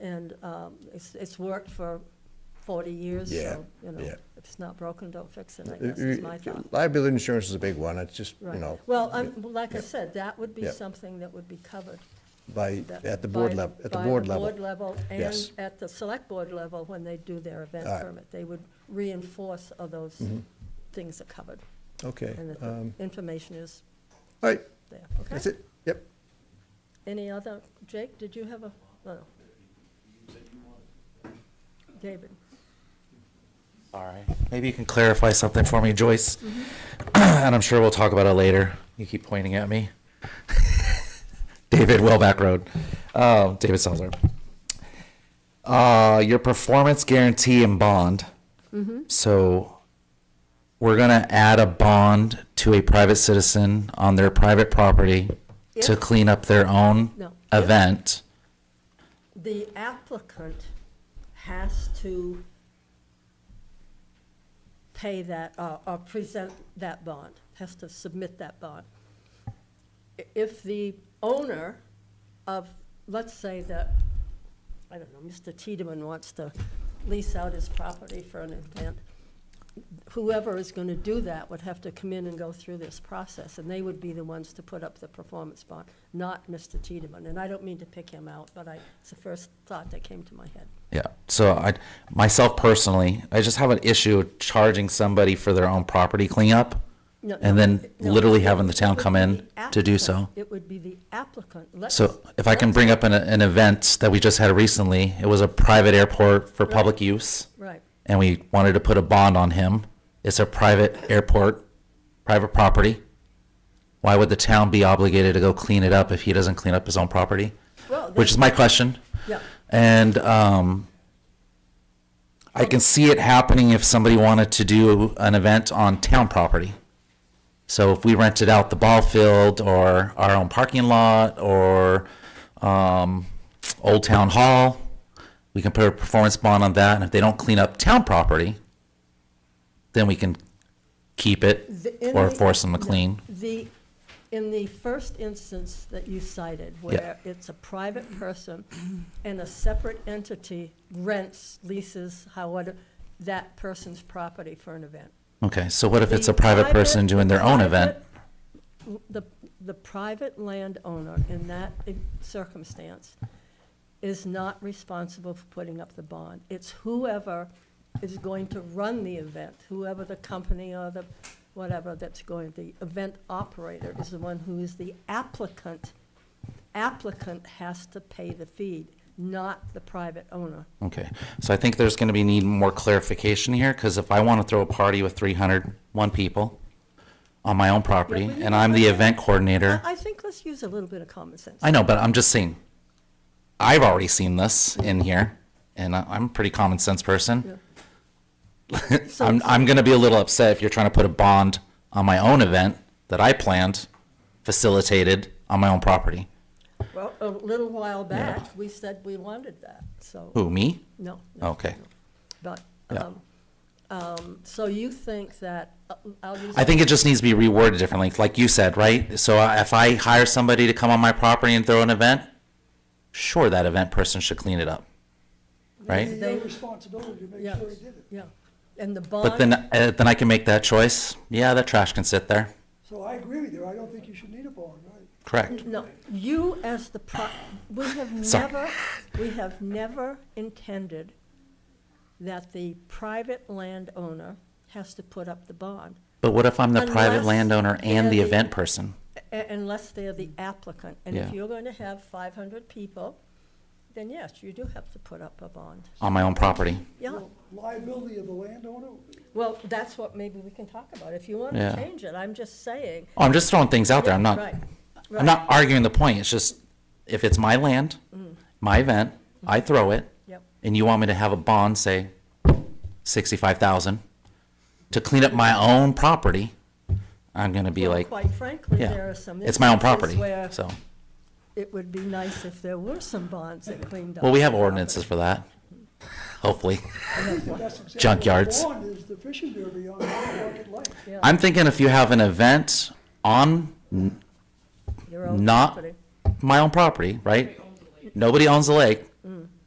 and um, it's, it's worked for forty years, Yeah, so, you know, yeah. if it's not broken, don't fix it, I guess is my thought. Uh, Liability insurance is a big one, it's just, you Right. know, Well, I'm, like I said, that would be Yeah. something that would be covered. by, that- at the board by- level, at the board By the board level. level and Yes. at the select board level, when they do their event All right. permit, they would reinforce all those things are covered, Okay, and that the um, information is all right, there, that's okay? it, yep. Any other, Jake, did you have a, oh. no, no. David, All right. Maybe you can clarify something for me, Joyce. And I'm sure we'll talk about it later. You keep pointing at me. David Wellback Road. Um, David Salzer. Uh, your performance guarantee and bond. So we're going to add a bond to a private citizen on their private property to If- clean up their own No. If- event. the applicant has to pay that, uh, or present that bond, has to submit that bond. I- If the owner of, let's say that, I don't know, Mr. Tiedemann wants to lease out his property for an event, whoever is going to do that would have to come in and go through this process, and they would be the ones to put up the performance bond, not Mr. Tiedemann. And I don't mean to pick him out, but I, it's the first thought that came to my head. Yeah. So I, myself personally, I just have an issue charging somebody for their own property cleanup. No, And no, then no, literally it having the town would come be in the to do applicant. so. It would be the applicant. Let's- So if I can bring up an, an event that we just had recently, it was a private airport for public use Right, and we wanted to put a bond on him. It's a private airport, private property. Why would the town be obligated to go clean it up if he doesn't clean up his own property? Well, Which is my question. yeah. And um, I can see it happening if somebody wanted to do an event on town property. So if we rented out the ball field or our own parking lot or um, Old Town Hall, we can put a performance bond on that. And if they don't clean up town property, then we can keep it The- in or the- force them to clean. The, in the first instance that you cited, where it's a private person and a separate entity rents, leases, however, that person's property for an event. Okay, so what if it's The a private person doing their own event? private- The, the private landowner in that i- circumstance is not responsible for putting up the bond. It's whoever is going to run the event, whoever the company or the, whatever that's going, the event operator is the one who is the applicant. Applicant has to pay the fee, not the private owner. Okay, so I think there's gonna be need more clarification here, because if I wanna throw a party with 300, one people on my own property, we need and I'm the to- Uh-huh. event coordinator, I, I think let's use a little bit of common sense. I know, but I'm just saying, I've already seen this in here, and I- I'm a pretty common sense person. So- I'm, I'm gonna be a little upset if you're trying to put a bond on my own event that I planned, facilitated on my own property. Well, a little while back, we said we wanted that, so, Who, me? no. no, Okay. no. But, Yeah. um, um, so you think that, uh, I'll use. I think it just needs to be reworded differently, like you said, right? So I- if I hire somebody to come on my property and throw an event, sure, that event person should clean it up, right? Their responsibility to make Yeah, sure he did it. yeah. And the But then, bond, uh, then I can make that choice. Yeah, that trash can sit there. So I agree with you, I don't think you should need a bond, right? Correct. no, you as the pro, we have Sorry. never, we have never intended that the private landowner has to put up the bond But what if I'm the private Unless landowner and they're the the- event person? A- Unless they're the applicant. And if Yeah. you're going to have 500 people, then yes, you do have to put up a bond. On my own property. Yeah, Well, Liability of the landowner, well, that's what maybe we can talk about. If you want to Yeah. change it, I'm just saying. Oh, I'm just throwing things out there. I'm not, Right, I'm not arguing the point. It's just, if it's my land, Mm. my event, I throw it. Yep. and you want me to have a bond, say, sixty-five thousand, to clean up my own property, I'm gonna be Well, like, Quite frankly, there yeah, are some. it's my own instances property, Where so. it would be nice if there were some bonds that cleaned up. Well, we have the property. ordinances for that, hopefully. the best example of a Junkyards. bond is the fishing derby on Market Lake. I'm thinking if you have an event on Your own not property. my own property, right? Nobody owns the lake,